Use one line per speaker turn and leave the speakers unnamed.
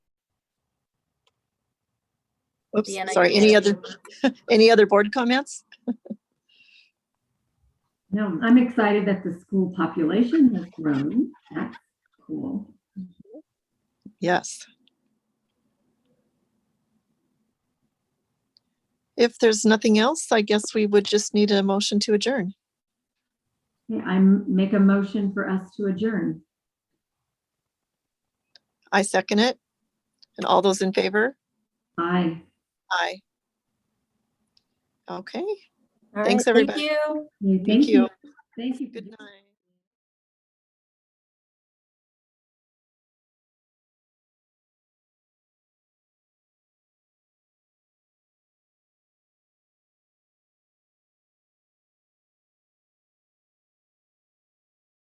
Oops,
be an
sorry, any
idea.
other, any other board comments?
No, I'm excited that the school population has grown. That's cool.
Yes. If there's nothing else, I guess we would just need a motion to adjourn.
Okay, I m- make a motion for us to adjourn.
I second it. And all those in favor?
Aye.
Aye. Okay,
All right,
Thanks, everybody.
Thank you.
Okay,
thank you.
Thank you. for
Good
doing
night.